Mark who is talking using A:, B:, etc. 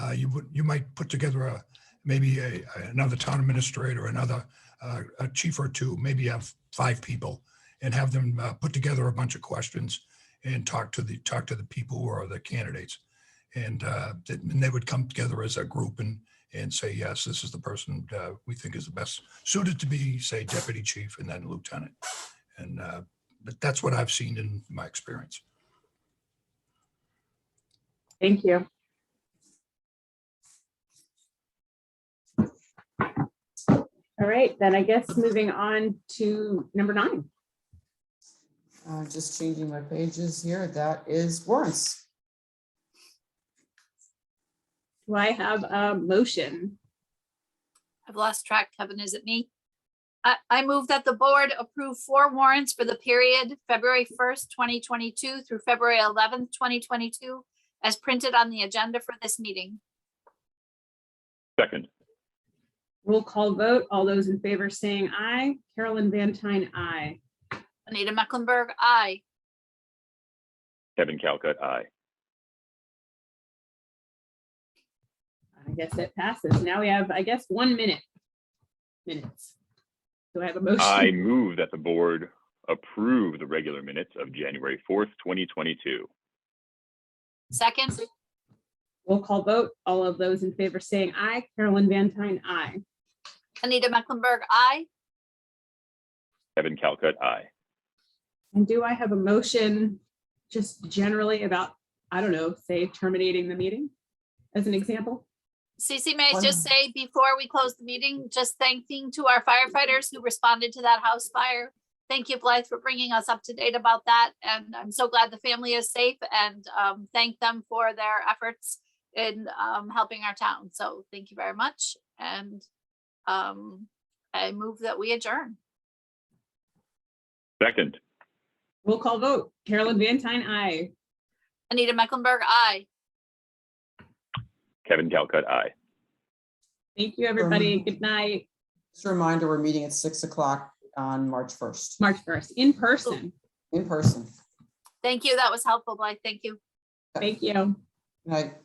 A: uh, you would, you might put together a, maybe a, another town administrator, another, uh, a chief or two, maybe have five people and have them, uh, put together a bunch of questions and talk to the, talk to the people who are the candidates. And, uh, that- and they would come together as a group and, and say, yes, this is the person, uh, we think is the best suited to be, say, deputy chief and then lieutenant. And, uh, but that's what I've seen in my experience.
B: Thank you. All right, then I guess moving on to number nine.
C: Uh, just changing my pages here. That is warrants.
B: Do I have a motion?
D: I've lost track. Kevin, is it me? I, I move that the board approve four warrants for the period February first, twenty twenty-two through February eleventh, twenty twenty-two, as printed on the agenda for this meeting.
E: Second,
B: Roll call vote. All those in favor saying aye. Carolyn Van Tine, aye.
D: Anita Mecklenburg, aye.
E: Kevin Calcutt, aye.
B: I guess it passes. Now we have, I guess, one minute. Minutes. Do I have a motion?
E: I move that the board approve the regular minutes of January 4th, 2022.
D: Second,
B: Roll call vote. All of those in favor saying aye. Carolyn Van Tine, aye.
D: Anita Mecklenburg, aye.
E: Kevin Calcutt, aye.
B: And do I have a motion just generally about, I don't know, say terminating the meeting as an example?
D: Cece, may I just say before we close the meeting, just thanking to our firefighters who responded to that house fire. Thank you, Blythe, for bringing us up to date about that. And I'm so glad the family is safe and um, thank them for their efforts in um, helping our town. So thank you very much. And um, I move that we adjourn.
E: Second,
B: Roll call vote. Carolyn Vantine, aye.
D: Anita Mecklenburg, aye.
E: Kevin Calcutt, aye.
B: Thank you, everybody. Good night.
C: Just a reminder, we're meeting at six o'clock on March first,
B: March 1st, in person.
C: in person.
D: Thank you. That was helpful, Blythe. Thank you.
B: Thank you.
C: Good night.